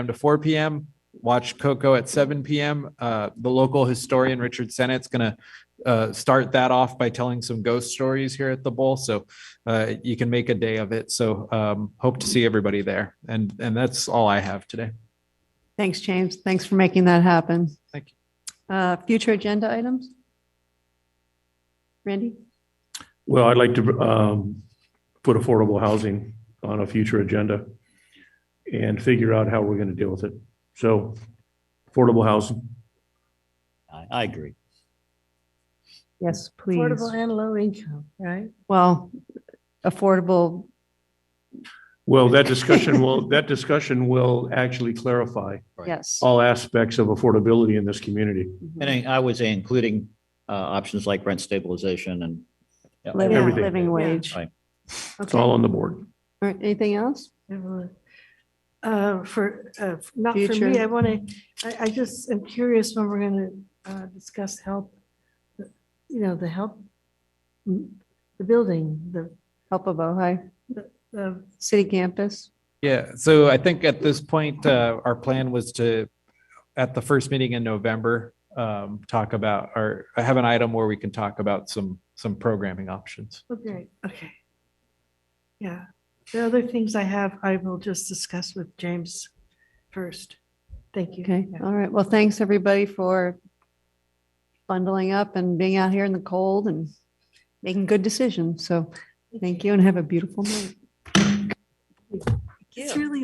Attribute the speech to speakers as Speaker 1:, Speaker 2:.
Speaker 1: p.m. to four PM. Watch Coco at seven PM. Uh, the local historian, Richard Sennett's gonna uh, start that off by telling some ghost stories here at the bowl. So uh, you can make a day of it. So um, hope to see everybody there. And, and that's all I have today.
Speaker 2: Thanks, James. Thanks for making that happen.
Speaker 1: Thank
Speaker 2: you. Uh, future agenda items? Randy?
Speaker 3: Well, I'd like to um, put affordable housing on a future agenda and figure out how we're going to deal with it. So affordable housing,
Speaker 4: I, I agree.
Speaker 2: Yes, please.
Speaker 5: Affordable and low income, right?
Speaker 2: Well, affordable,
Speaker 3: well, that discussion will, that discussion will actually clarify
Speaker 4: Right.
Speaker 2: yes.
Speaker 3: all aspects of affordability in this community.
Speaker 4: And I- I would say including uh, options like rent stabilization and. yeah,
Speaker 2: Living-
Speaker 3: everything.
Speaker 2: Living wage.
Speaker 4: Right.
Speaker 3: It's
Speaker 2: Okay.
Speaker 3: all
Speaker 2: All
Speaker 3: on the board.
Speaker 2: right, Anything else?
Speaker 5: Everyone. Uh, For, uh, not for me,
Speaker 2: Future.
Speaker 5: I want to, I, I just am curious when we're going to discuss help, you know, the help, mm, the building, the,
Speaker 2: Help of Ojai,
Speaker 5: the
Speaker 2: city campus?
Speaker 1: Yeah, so I think at this point, uh, our plan was to, at the first meeting in November, um, talk about, or I have an item where we can talk about some, some programming options.
Speaker 5: okay, okay. Yeah, the other things I have, I will just discuss with James first. Thank you.
Speaker 2: Okay,
Speaker 5: Yeah.
Speaker 2: all right. Well, thanks, everybody, for bundling up and being out here in the cold and making good decisions. So thank you and have a beautiful night.
Speaker 5: It's really